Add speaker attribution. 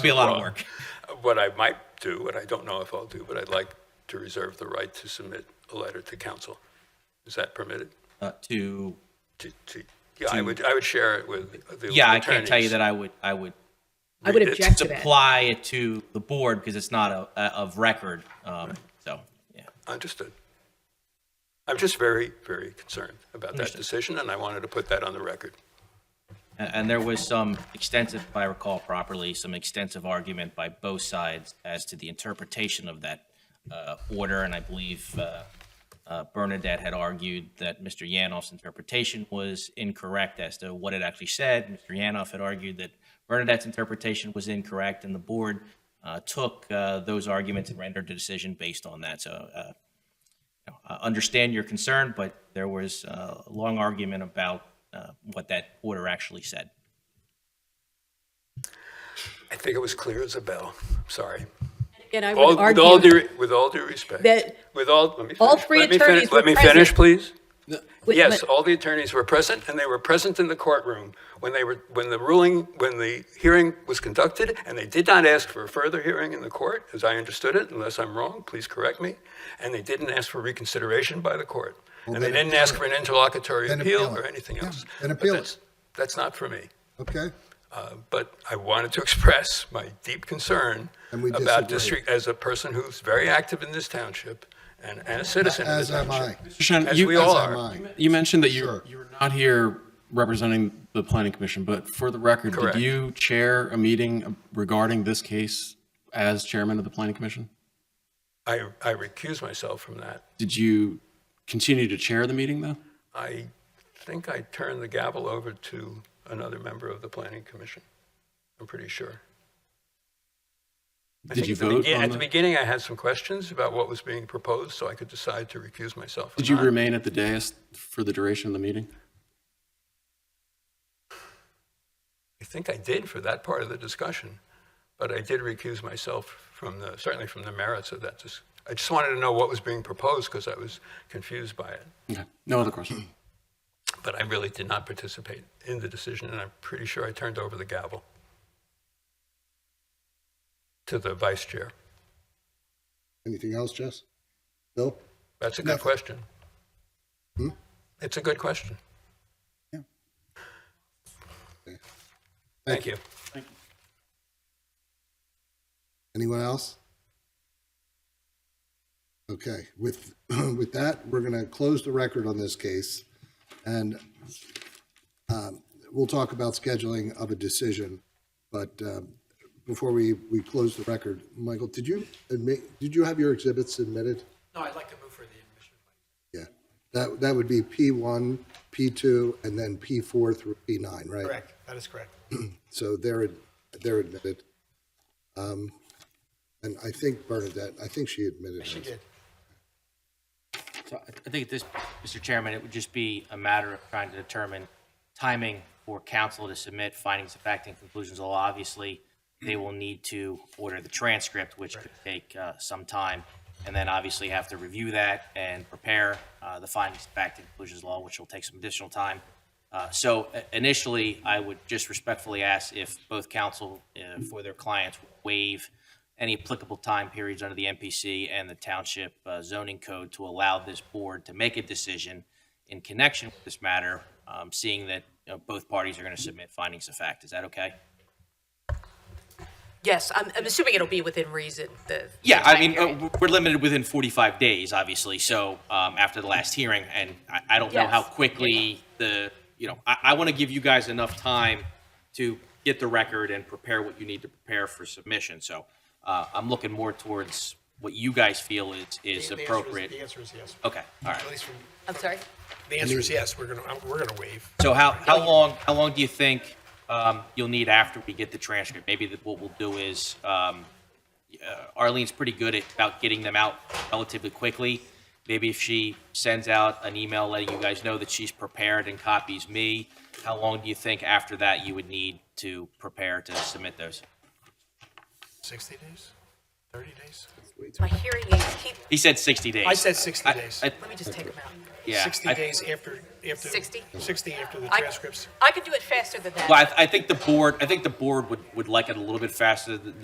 Speaker 1: be a lot of work.
Speaker 2: What I might do, what I don't know if I'll do, but I'd like to reserve the right to submit a letter to council. Is that permitted?
Speaker 1: Uh, to
Speaker 2: To- to- Yeah, I would, I would share it with the attorneys.
Speaker 1: yeah, I can't tell you that I would I would
Speaker 3: I would
Speaker 2: It's
Speaker 3: object to that.
Speaker 1: supply it to the board because it's not a, a of record. Um, so yeah,
Speaker 2: Understood. I'm just very, very concerned about that decision, and I wanted to put that on the record.
Speaker 1: and, and there was some extensive, if I recall properly, some extensive argument by both sides as to the interpretation of that uh, order, and I believe. Uh, uh, Bernadette had argued that Mr. Yanoff's interpretation was incorrect as to what it actually said. Mr. Yanoff had argued that Bernadette's interpretation was incorrect, and the board uh, took uh, those arguments and rendered a decision based on that. So, uh, you know, I understand your concern, but there was uh, a long argument about uh, what that order actually said.
Speaker 2: I think it was clear as a bell. I'm sorry.
Speaker 3: And I
Speaker 2: All-
Speaker 3: would
Speaker 2: With all
Speaker 3: argue
Speaker 2: due, with all due respect,
Speaker 3: that
Speaker 2: with all, let me finish.
Speaker 3: all three
Speaker 2: let me
Speaker 3: attorneys
Speaker 2: finish-
Speaker 3: were
Speaker 2: Let me
Speaker 3: present.
Speaker 2: finish, please.
Speaker 3: Wait,
Speaker 2: Yes,
Speaker 3: but-
Speaker 2: all the attorneys were present, and they were present in the courtroom when they were, when the ruling, when the hearing was conducted, and they did not ask for a further hearing in the court, as I understood it, unless I'm wrong, please correct me, and they didn't ask for reconsideration by the court. And they
Speaker 4: then
Speaker 2: didn't ask for an interlocutory
Speaker 4: Then
Speaker 2: appeal
Speaker 4: appeal it.
Speaker 2: or anything
Speaker 4: Yeah,
Speaker 2: else.
Speaker 4: then
Speaker 2: But
Speaker 4: appeal it.
Speaker 2: that's- That's not for me.
Speaker 4: Okay,
Speaker 2: Uh, But I wanted to express my deep concern
Speaker 4: And we
Speaker 2: about
Speaker 4: disagree.
Speaker 2: district, as a person who's very active in this township and and a citizen of the
Speaker 4: as am I.
Speaker 2: township.
Speaker 5: Mr. Shen,
Speaker 2: As
Speaker 5: you,
Speaker 2: we all
Speaker 4: As am
Speaker 2: are.
Speaker 4: I.
Speaker 5: you mentioned that you
Speaker 4: Sure.
Speaker 5: you were not here representing the planning commission, but for the record,
Speaker 2: Correct.
Speaker 5: did you chair a meeting uh, regarding this case as chairman of the planning commission?
Speaker 2: I, I recuse myself from that.
Speaker 5: Did you continue to chair the meeting though?
Speaker 2: I think I turned the gavel over to another member of the planning commission. I'm pretty sure. I
Speaker 5: Did
Speaker 2: think
Speaker 5: you
Speaker 2: at the
Speaker 5: vote
Speaker 2: begin-
Speaker 5: on
Speaker 2: At the
Speaker 5: the-
Speaker 2: beginning, I had some questions about what was being proposed, so I could decide to recuse myself. or
Speaker 5: Did you
Speaker 2: not.
Speaker 5: remain at the dais for the duration of the meeting?
Speaker 2: I think I did for that part of the discussion, but I did recuse myself from the, certainly from the merits of that. dis- I just wanted to know what was being proposed because I was confused by it.
Speaker 5: Okay, no other questions.
Speaker 2: But I really did not participate in the decision, and I'm pretty sure I turned over the gavel to the vice chair.
Speaker 4: Anything else, Jess? Bill?
Speaker 2: That's a good
Speaker 4: Nothing.
Speaker 2: question.
Speaker 4: Hmm?
Speaker 2: It's a good question. Thank you.
Speaker 4: Anyone else? Okay, with, with that, we're going to close the record on this case, and um, we'll talk about scheduling of a decision, but um, before we, we close the record, Michael, did you admit, did you have your exhibits submitted?
Speaker 6: No, I'd like to move for the admission.
Speaker 4: Yeah, that, that would be P1, P2, and then P4 through P9, right?
Speaker 6: Correct, that is correct.
Speaker 4: So they're, they're admitted. Um, And I think Bernadette, I think she admitted.
Speaker 6: She
Speaker 4: it.
Speaker 6: did.
Speaker 7: So I- I think at this, Mr. Chairman, it would just be a matter of trying to determine timing for council to submit findings of fact and conclusions of law. Obviously, they will need to order the transcript, which could take uh, some time, and then obviously have to review that and prepare uh, the findings of fact and conclusions of law, which will take some additional time. Uh, So i- initially, I would just respectfully ask if both council uh, for their clients waive any applicable time periods under the MPC and the Township uh, Zoning Code to allow this board to make a decision in connection with this matter, um, seeing that you know, both parties are going to submit findings of fact. Is that okay?
Speaker 3: yes, I'm, I'm assuming it'll be within reason. The
Speaker 7: Yeah,
Speaker 3: the
Speaker 7: I
Speaker 3: time
Speaker 7: mean,
Speaker 3: period.
Speaker 7: uh, we're limited within 45 days, obviously, so um, after the last hearing, and I- I don't know how
Speaker 3: Yes.
Speaker 7: quickly the, you know, I, I want to give you guys enough time to get the record and prepare what you need to prepare for submission, so uh, I'm looking more towards what you guys feel is,
Speaker 6: The-
Speaker 7: is
Speaker 6: the answer is-
Speaker 7: appropriate.
Speaker 6: The answer is yes.
Speaker 7: Okay, all right.
Speaker 6: At least from,
Speaker 3: I'm sorry.
Speaker 6: the answer is yes, we're gonna, we're gonna waive.
Speaker 7: So how, how long, how long do you think um, you'll need after we get the transcript? Maybe that what we'll do is, um, uh, Arlene's pretty good at about getting them out relatively quickly. Maybe if she sends out an email letting you guys know that she's prepared and copies me, how long do you think after that you would need to prepare to submit those?
Speaker 6: 60 days? 30 days?
Speaker 3: my hearing aids keep,
Speaker 7: He said 60 days.
Speaker 6: I said 60 days.
Speaker 7: I-
Speaker 3: let me just take them out.
Speaker 7: yeah,
Speaker 6: 60
Speaker 7: I-
Speaker 6: days after, after.
Speaker 3: 60?
Speaker 6: 60 after the
Speaker 3: I-
Speaker 6: transcripts.
Speaker 3: I can do it faster than that.
Speaker 7: Well, I, I think the board, I think the board would, would like it a little bit faster th-